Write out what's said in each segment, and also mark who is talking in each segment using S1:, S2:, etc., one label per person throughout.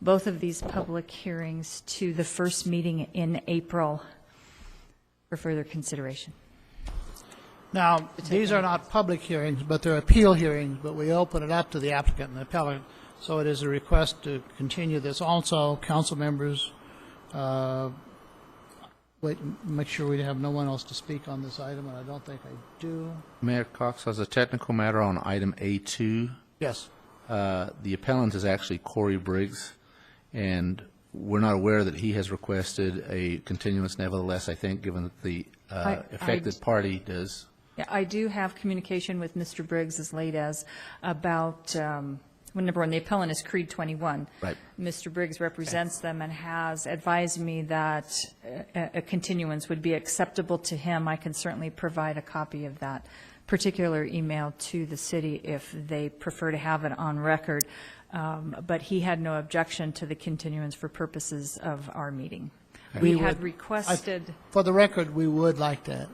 S1: both of these public hearings to the first meeting in April for further consideration.
S2: Now, these are not public hearings, but they're appeal hearings, but we open it up to the applicant and the appellant. So it is a request to continue this. Also, council members, uh, wait, make sure we have no one else to speak on this item, and I don't think I do.
S3: Mayor Cox, as a technical matter on item A2,
S2: Yes.
S3: uh, the appellant is actually Corey Briggs, and we're not aware that he has requested a continuance nevertheless, I think, given that the uh,
S1: I- I-
S3: affected party does.
S1: Yeah, I do have communication with Mr. Briggs as late as about, um, well, number one, the appellant is Creed 21.
S3: Right.
S1: Mr. Briggs represents them and has advised me that a a continuance would be acceptable to him. I can certainly provide a copy of that particular email to the city if they prefer to have it on record. Um, But he had no objection to the continuance for purposes of our meeting. We had requested,
S2: For the record, we would like to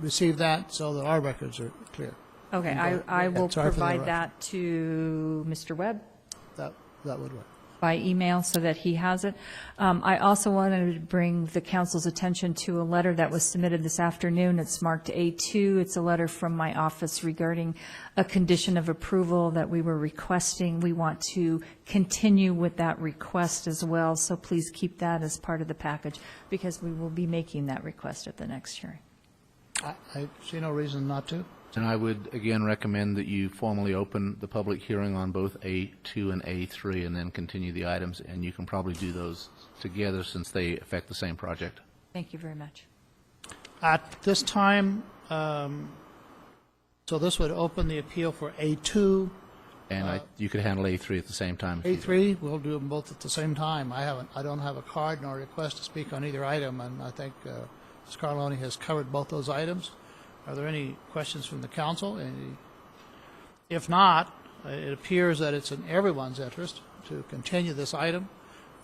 S2: receive that so that our records are clear.
S1: okay, I I will
S2: Sorry for the
S1: provide
S2: interruption.
S1: that to Mr. Webb.
S2: That, that would work.
S1: by email so that he has it. Um, I also wanted to bring the council's attention to a letter that was submitted this afternoon. It's marked A2. It's a letter from my office regarding a condition of approval that we were requesting. We want to continue with that request as well, so please keep that as part of the package because we will be making that request at the next hearing.
S2: I, I see no reason not to.
S3: And I would, again, recommend that you formally open the public hearing on both A2 and A3, and then continue the items, and you can probably do those together since they affect the same project.
S1: Thank you very much.
S2: At this time, um, so this would open the appeal for A2.
S3: And
S1: Uh,
S3: I- you could handle A3 at the same time. if you-
S2: A3, we'll do them both at the same time. I haven't, I don't have a card nor a request to speak on either item, and I think uh, Scarloni has covered both those items. Are there any questions from the council? Any- If not, uh, it appears that it's in everyone's interest to continue this item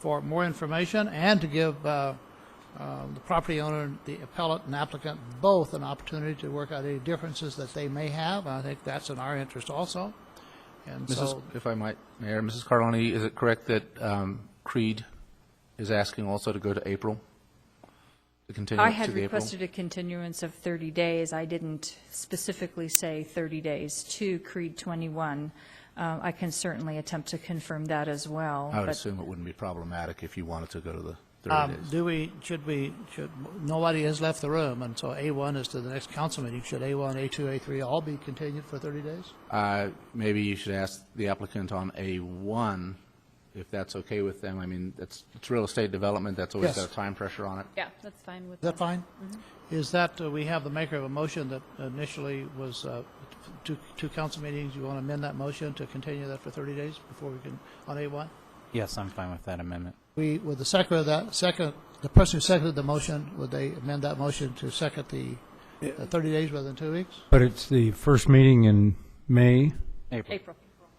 S2: for more information and to give uh, uh, the property owner, the appellant, and applicant both an opportunity to work out any differences that they may have. I think that's in our interest also. And
S3: Mrs.,
S2: so,
S3: if I might, Mayor, Mrs. Carloni, is it correct that um, Creed is asking also to go to April? To continue
S1: I
S3: it to
S1: had
S3: the April?
S1: requested a continuance of 30 days. I didn't specifically say 30 days to Creed 21. Uh, I can certainly attempt to confirm that as well.
S3: I would
S1: but-
S3: assume it wouldn't be problematic if you wanted to go to the 30
S2: Um,
S3: days.
S2: Do we, should we, should, nobody has left the room, and so A1 is to the next council meeting. Should A1, A2, A3 all be continued for 30 days?
S3: Uh, Maybe you should ask the applicant on A1 if that's okay with them. I mean, it's it's real estate development, that's always
S2: Yes.
S3: got a time pressure on it.
S4: Yeah, that's fine with
S2: Is that
S4: them.
S2: fine? Is that, uh, we have the maker of a motion that initially was uh, two, two council meetings. You want to amend that motion to continue that for 30 days before we can, on A1?
S5: Yes, I'm fine with that amendment.
S2: We, with the second of that, second, the person who seconded the motion, would they amend that motion to second the uh, 30 days rather than two weeks?
S6: But it's the first meeting in May,
S5: April.
S4: April.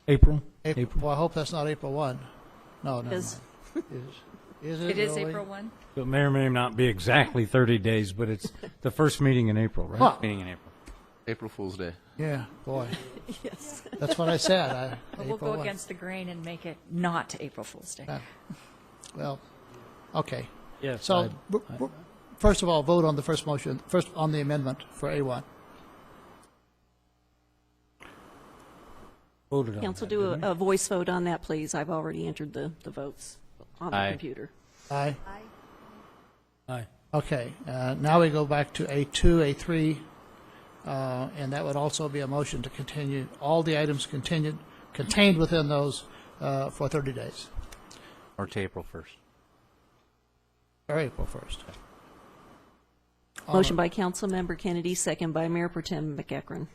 S6: April?
S2: April, well, I hope that's not April 1. No, no,
S1: Is-
S2: Is it
S1: It is
S2: really?
S1: April 1?
S6: It may or may not be exactly 30 days, but it's the first meeting in April, right?
S5: Meeting in April.
S3: April Fool's Day.
S2: Yeah, boy. yes. That's what I said. I,
S1: But we'll
S2: April
S1: go
S2: one.
S1: against the grain and make it not April Fool's Day.
S2: Well, okay.
S5: Yes.
S2: So, b- b- first of all, vote on the first motion, first on the amendment for A1.
S6: Voted on
S7: Council,
S6: that,
S7: do
S6: didn't we?
S7: a, a voice vote on that, please. I've already entered the, the votes on the
S5: Aye.
S7: computer.
S2: Aye.
S6: Aye.
S2: Okay, uh, now we go back to A2, A3, uh, and that would also be a motion to continue, all the items continued, contained within those uh, for 30 days,
S5: Or to April 1st.
S2: or April 1st.
S7: Motion by Councilmember Kennedy, second by Mayor Pro Tem McEckern.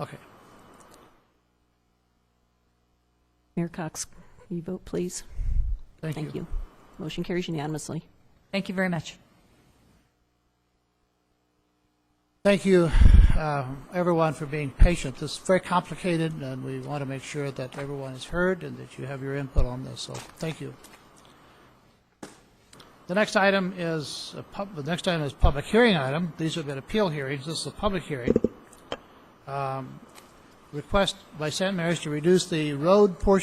S2: Okay.
S7: Mayor Cox, you vote, please.
S2: Thank,
S7: Thank you. Motion carries unanimously.
S1: Thank you very much.
S2: Thank you, uh, everyone, for being patient. This is very complicated, and we want to make sure that everyone is heard and that you have your input on this, so thank you. The next item is, a pub- the next item is public hearing item. These have been appeal hearings. This is a public hearing. Um, request by St. Mary's to reduce the road portion